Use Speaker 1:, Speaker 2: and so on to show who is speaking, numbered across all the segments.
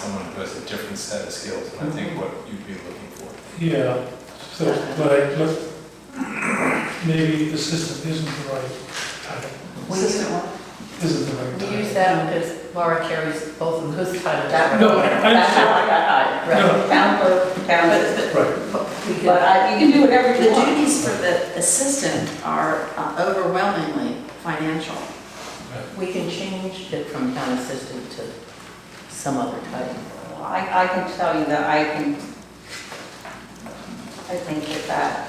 Speaker 1: someone who has a different set of skills, and I think what you'd be looking for.
Speaker 2: Yeah, so, but I, but maybe assistant isn't the right title,
Speaker 3: We
Speaker 4: Assistant
Speaker 3: use-
Speaker 2: isn't the right
Speaker 3: we use
Speaker 2: title.
Speaker 3: that because Laura carries both of those kind of that.
Speaker 2: No, I
Speaker 4: That's how
Speaker 2: understand,
Speaker 4: I got
Speaker 2: No.
Speaker 4: hired. Right. Town clerk, town assistant.
Speaker 2: right,
Speaker 3: We
Speaker 4: But
Speaker 3: could-
Speaker 4: I, you can do whatever
Speaker 5: The
Speaker 4: you want.
Speaker 5: duties for the assistant are uh, overwhelmingly financial.
Speaker 3: We can change it from town assistant to some other title.
Speaker 4: I, I can tell you that I can, I think that that,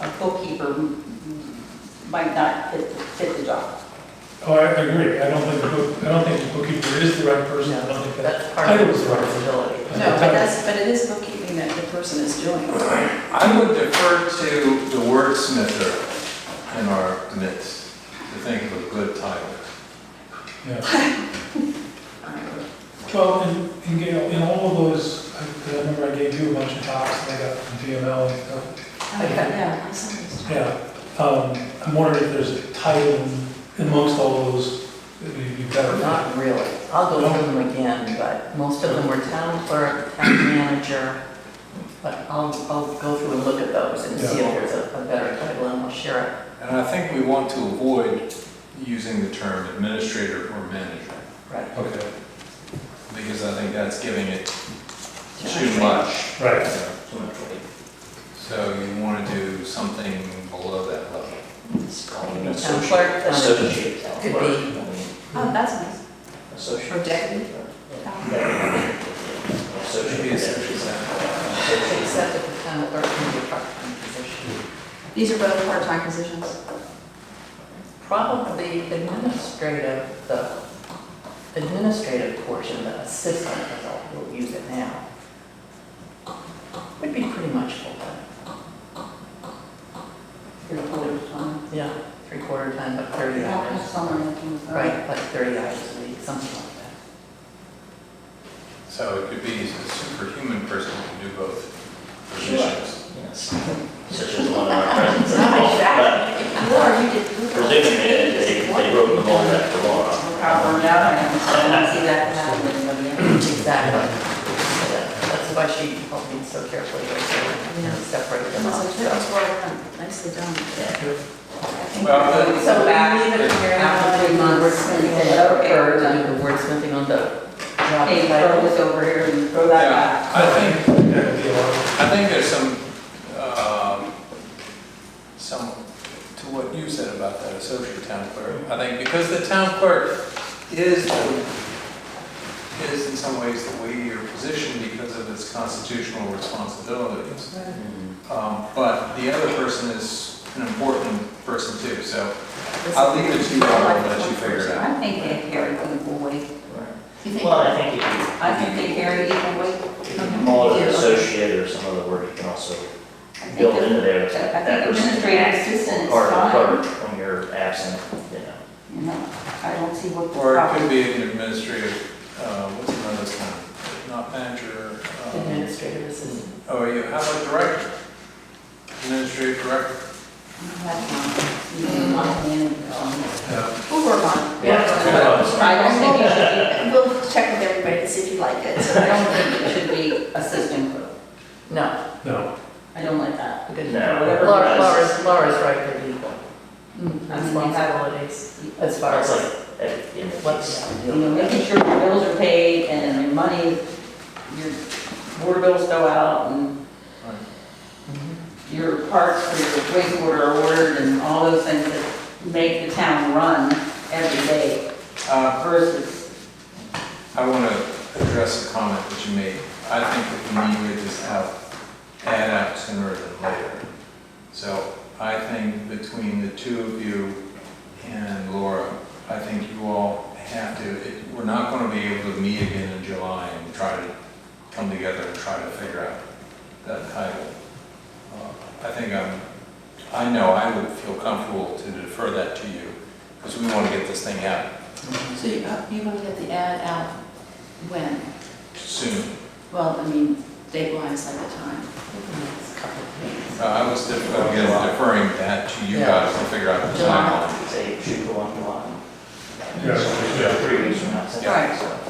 Speaker 4: a bookkeeper m- m- might not fit, the- fit the job.
Speaker 2: oh, I I agree, I don't think, the book- I don't think the bookkeeper is the right person, I don't think that.
Speaker 3: That's part of
Speaker 2: Title is right.
Speaker 3: responsibility.
Speaker 5: No, but that's, but it is bookkeeping that the person is doing.
Speaker 1: I would defer to the wordsmither in our midst to think of a good title.
Speaker 2: Yeah. Well, and, and Gail, in all of those, I 'cause I remember I gave you a bunch of talks, and I got from VML and stuff.
Speaker 5: Yeah, I saw this.
Speaker 2: Yeah, um, I'm wondering if there's a title amongst all those that would be better.
Speaker 3: Not really. I'll go through them again, but most of them were town clerk, town manager. But I'll, I'll go through and look at those and see if there's a a better title and I'll share it.
Speaker 1: And I think we want to avoid using the term administrator or manager,
Speaker 3: Right.
Speaker 2: Okay,
Speaker 1: because I think that's giving it too much.
Speaker 2: right.
Speaker 1: So you want to do something below that level.
Speaker 4: um,
Speaker 3: Town clerk, uh,
Speaker 6: Associate.
Speaker 3: could be,
Speaker 4: Oh, that's nice.
Speaker 6: Associate.
Speaker 5: Or deputy,
Speaker 1: Maybe associate
Speaker 6: Associate.
Speaker 1: secretary.
Speaker 3: except that the town clerk can be a part-time position.
Speaker 5: these are both part-time positions.
Speaker 3: Probably administrative, the administrative portion, the assistant, as I'll- we'll use it now, would be pretty much full-time.
Speaker 4: Your full time.
Speaker 3: Yeah, three-quarter time, but 30
Speaker 4: Yeah,
Speaker 3: hours.
Speaker 4: someone that can-
Speaker 3: Right, like 30 hours a week, something like that.
Speaker 1: So it could be a superhuman person who can do both positions.
Speaker 6: Such as one of our friends at the mall.
Speaker 5: Laura, you did. you were-
Speaker 6: Presuming they, they they wrote the whole that tomorrow.
Speaker 4: How burned out I am, so I don't see that happening, but yeah.
Speaker 3: Exactly. That- That's why she helped me so carefully, right,
Speaker 5: Yeah.
Speaker 3: to separate
Speaker 5: It
Speaker 3: them out.
Speaker 5: was a- it was well done, nicely done.
Speaker 1: Well,
Speaker 4: So
Speaker 3: So we
Speaker 4: back
Speaker 3: leave it here
Speaker 4: after
Speaker 3: after
Speaker 4: three
Speaker 3: the
Speaker 4: months and
Speaker 3: wordsmithing,
Speaker 4: say, okay, we're done.
Speaker 3: the wordsmithing on the job
Speaker 4: Hey,
Speaker 3: title.
Speaker 4: throw this over here and throw that back.
Speaker 1: Yeah, I think
Speaker 2: That would be a lot.
Speaker 1: I think there's some, um, some, to what you said about that associate town clerk. I think because the town clerk is, the- is in some ways the weightier position because of its constitutional responsibilities. Um, But the other person is an important person too, so I'll leave it to you all and let you figure it out.
Speaker 4: I think they carry equal weight. Mm-hmm.
Speaker 5: You think-
Speaker 6: Well, I think if
Speaker 4: I think they carry equal weight.
Speaker 6: you, if you call it an associate or some other word, you can also
Speaker 4: I think
Speaker 6: build
Speaker 4: that-
Speaker 6: into there
Speaker 4: I
Speaker 6: that that
Speaker 4: think
Speaker 6: person can
Speaker 4: administrative
Speaker 6: act
Speaker 4: assistant is
Speaker 6: part of
Speaker 4: fine.
Speaker 6: the clerk when you're absent, you know.
Speaker 4: You know, I don't see what the
Speaker 1: Or it
Speaker 4: problem
Speaker 1: could be an administrative, uh, what's another term? Not manager. um,
Speaker 3: Administrative assistant.
Speaker 1: Oh, you have a director, administrative director.
Speaker 4: is. You can lock me in on this.
Speaker 5: We'll work on it.
Speaker 4: I don't think it should
Speaker 5: And We'll check with everybody to see if you like it.
Speaker 4: be, I don't think it should be assistant clerk.
Speaker 3: No,
Speaker 2: No,
Speaker 4: I don't like that.
Speaker 3: good.
Speaker 6: No.
Speaker 3: Laura, Laura's, Laura's right, they're equal.
Speaker 5: Mm,
Speaker 4: I mean, they have,
Speaker 3: Responsibilities as far
Speaker 6: That's
Speaker 3: as
Speaker 6: like, eh, in the
Speaker 3: what's.
Speaker 6: case.
Speaker 4: you know, making sure your bills are paid and your money, your water bills go out and your parts for your wastewater are ordered and all those things that make the town run every day
Speaker 1: Uh,
Speaker 4: versus,
Speaker 1: I want to address a comment that you made. I think that we need to just have, add up sooner than later. So I think between the two of you and Laura, I think you all have to, it- we're not going to be able to meet again in July and try to come together and try to figure out that title. Uh, I think I'm, I know I would feel comfortable to defer that to you because we want to get this thing out
Speaker 5: So you, uh, you want to get the ad out when?
Speaker 1: soon.
Speaker 5: Well, I mean, deadlines like the time.
Speaker 1: Uh, I was def- again, deferring that to you guys to figure out the
Speaker 3: July.
Speaker 1: timeline.
Speaker 6: Say, shoot for one, one.
Speaker 2: Yeah.
Speaker 6: Three weeks from now.
Speaker 4: Right.
Speaker 6: So,